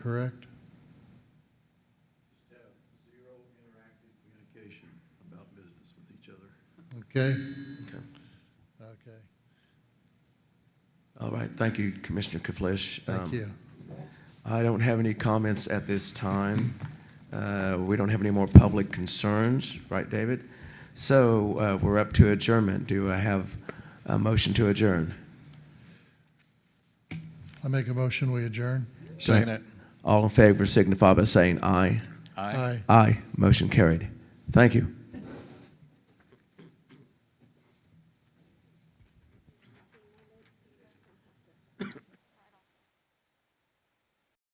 correct? Just have zero interactive communication about business with each other. Okay, Okay. okay, All right, thank you, Commissioner Kiflish. thank Um, you. I don't have any comments at this time. Uh, We don't have any more public concerns, right, David? So uh, we're up to adjournment. Do I have a motion to adjourn? I make a motion, we adjourn? Second it. All in favor signify by saying aye. Aye. Aye. Aye, motion carried. Thank you.